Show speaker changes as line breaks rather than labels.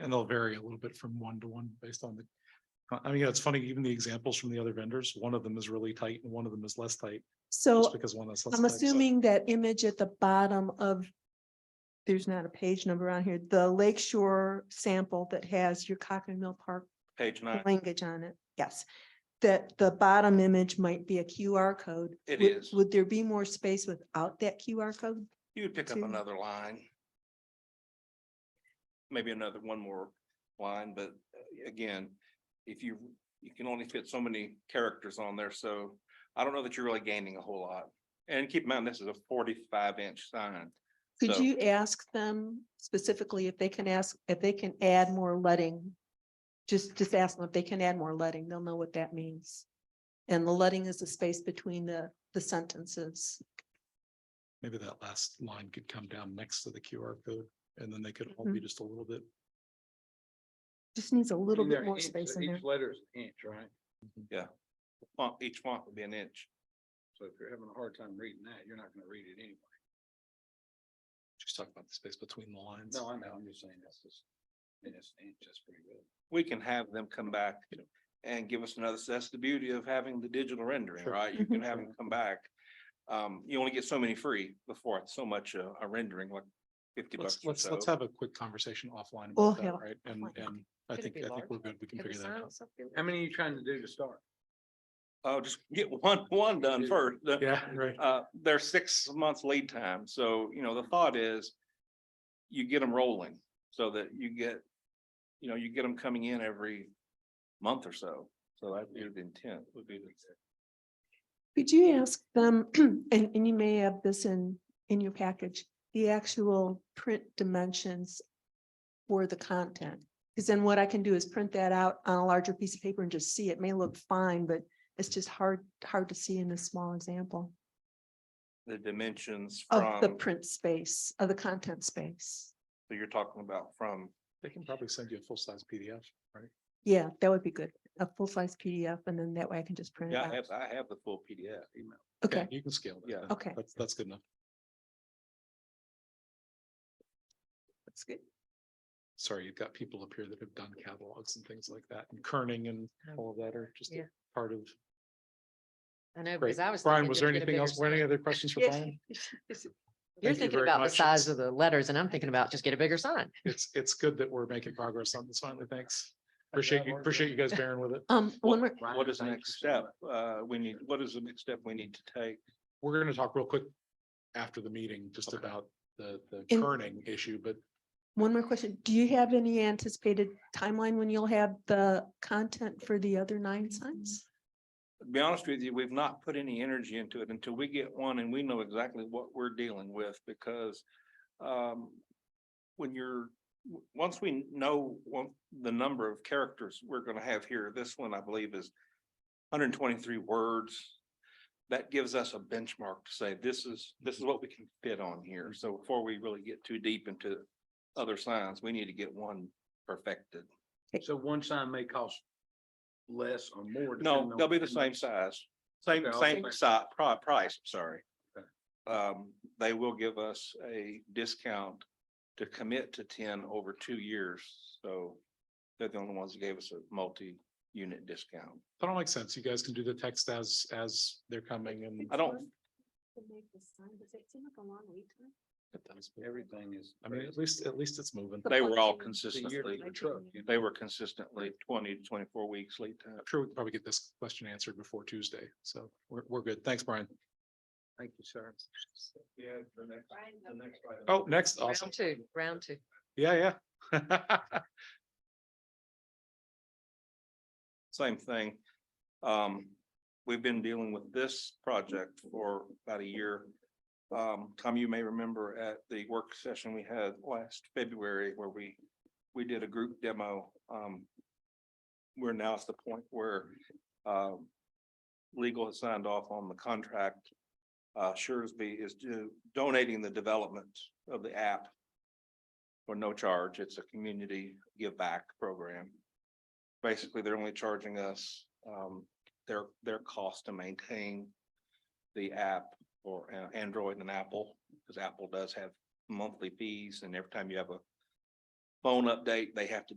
and they'll vary a little bit from one to one based on the. uh, I mean, it's funny, even the examples from the other vendors, one of them is really tight and one of them is less tight, just
So
because one is. less
I'm
tight, so-
assuming that image at the bottom of, there's not a page number on here, the Lake Shore sample that has your Cochrane Mill Park
Page nine,
language on it, yes. That the bottom image might be a QR code.
It
Would-
is.
Would there be more space without that QR code?
you would pick up
two.
another line. Maybe another one more line, but uh, again, if you, you can only fit so many characters on there, so I don't know that you're really gaining a whole lot. And keep in mind, this is a forty-five inch sign.
Could
So-
you ask them specifically if they can ask, if they can add more letting? Just, just ask them if they can add more letting. They'll know what that means. And the letting is the space between the, the sentences.
Maybe that last line could come down next to the QR code and then they could
Mm-hmm.
all be just a little bit.
Just needs a little
And
bit
they're
more
inch, so
space in there.
Each letter is an inch, right?
Font, each font would be an inch.
So if you're having a hard time reading that, you're not gonna read it anyway.
Just talk about the space between the lines.
No, I know, I'm just saying that's just, and it's an inch, that's pretty good.
we can have them come back and give us another, that's the beauty of having the digital rendering,
Sure.
right? You can
Mhm.
have them come back. Um, you only get so many free before it's so much a, a rendering, like fifty bucks
Let's,
or
let's, let's
so.
have a quick conversation offline
We'll
about that,
have-
right? And,
Oh, offline.
and I
Could it
think,
be
I think
large?
we're good. We can
Could the
figure that
sign
out.
also be
How many are you trying to do to start?
Oh, just get one, one done
Yeah.
first. The-
Yeah, right.
Uh, there's six months lead time, so, you know, the thought is you get them rolling so that you get, you know, you get them coming in every month or so. So that'd be the intent, would be the.
Could you ask them, and, and you may have this in, in your package, the actual print dimensions for the content? Because then what I can do is print that out on a larger piece of paper and just see. It may look fine, but it's just hard, hard to see in this small example
the dimensions
of Oh, the
from,
print space, of the content space.
so you're talking about from
They can probably send you a full-size PDF, right?
Yeah, that would be good. A full-size PDF, and then that way I can just print it
Yeah, I
out.
have, I have the full PDF email.
Yeah,
Okay,
You can scale that.
Yeah.
That-
Okay.
That's, that's good enough.
that's good.
Sorry, you've got people up here that have done catalogs and things like that and kerning and all of that are just
yeah.
part of.
I know,
Great.
because I was.
Brian,
thinking
was
just
there
get a
anything
bigger
else? Were any
sign.
other questions for
Yeah.
Brian?
You're
you
thinking
very
about the
much.
size of the letters and I'm thinking about just get a bigger sign.
It's, it's good that we're making progress on this finally. Thanks. Appreciate you, appreciate you guys bearing with it.
Um, one more,
Ryan,
What is the
thank
next
you so
step? Uh, we need, what is the next step we need to take?
We're gonna talk real quick after the meeting, just
Okay.
about the, the
In-
kerning issue, but
One more question. Do you have any anticipated timeline when you'll have the content for the other nine signs?
To be honest with you, we've not put any energy into it until we get one and we know exactly what we're dealing with because um, when you're, w- once we know one, the number of characters we're gonna have here, this one I believe is hundred and twenty-three words. That gives us a benchmark to say, this is, this is what we can fit on here. So before we really get too deep into other signs, we need to get one perfected.
much. So one sign may cost less or more.
No,
depending on
they'll be the
what
same
you-
size, same,
Okay, I'll
same
take-
si- pri- price, I'm sorry.
Okay.
Um, they will give us a discount to commit to ten over two years, so they're the only ones that gave us a multi-unit discount.
that'll make sense. You guys can do the text as, as they're coming and.
I don't,
Everything is.
I mean, at least, at least it's moving.
they were all
It's a year to
consistently,
the truck, you know?
they were consistently twenty to twenty-four weeks lead time.
I'm sure we can probably get this question answered before Tuesday. So we're, we're good. Thanks, Brian.
Thank you, sir.
Yeah, the next, the next.
Oh, next, awesome.
Round two, round two.
Yeah, yeah.
Same thing. Um, we've been dealing with this project for about a year. Um, Tom, you may remember at the work session we had last February where we, we did a group demo. Um, we're now at the point where, um, legal has signed off on the contract. Uh, Suresby is do- donating the development of the app for no charge. It's a community give back program basically they're only charging us um their their cost to maintain the app or uh, Android and Apple, because Apple does have monthly fees and every time you have a phone update, they have to do.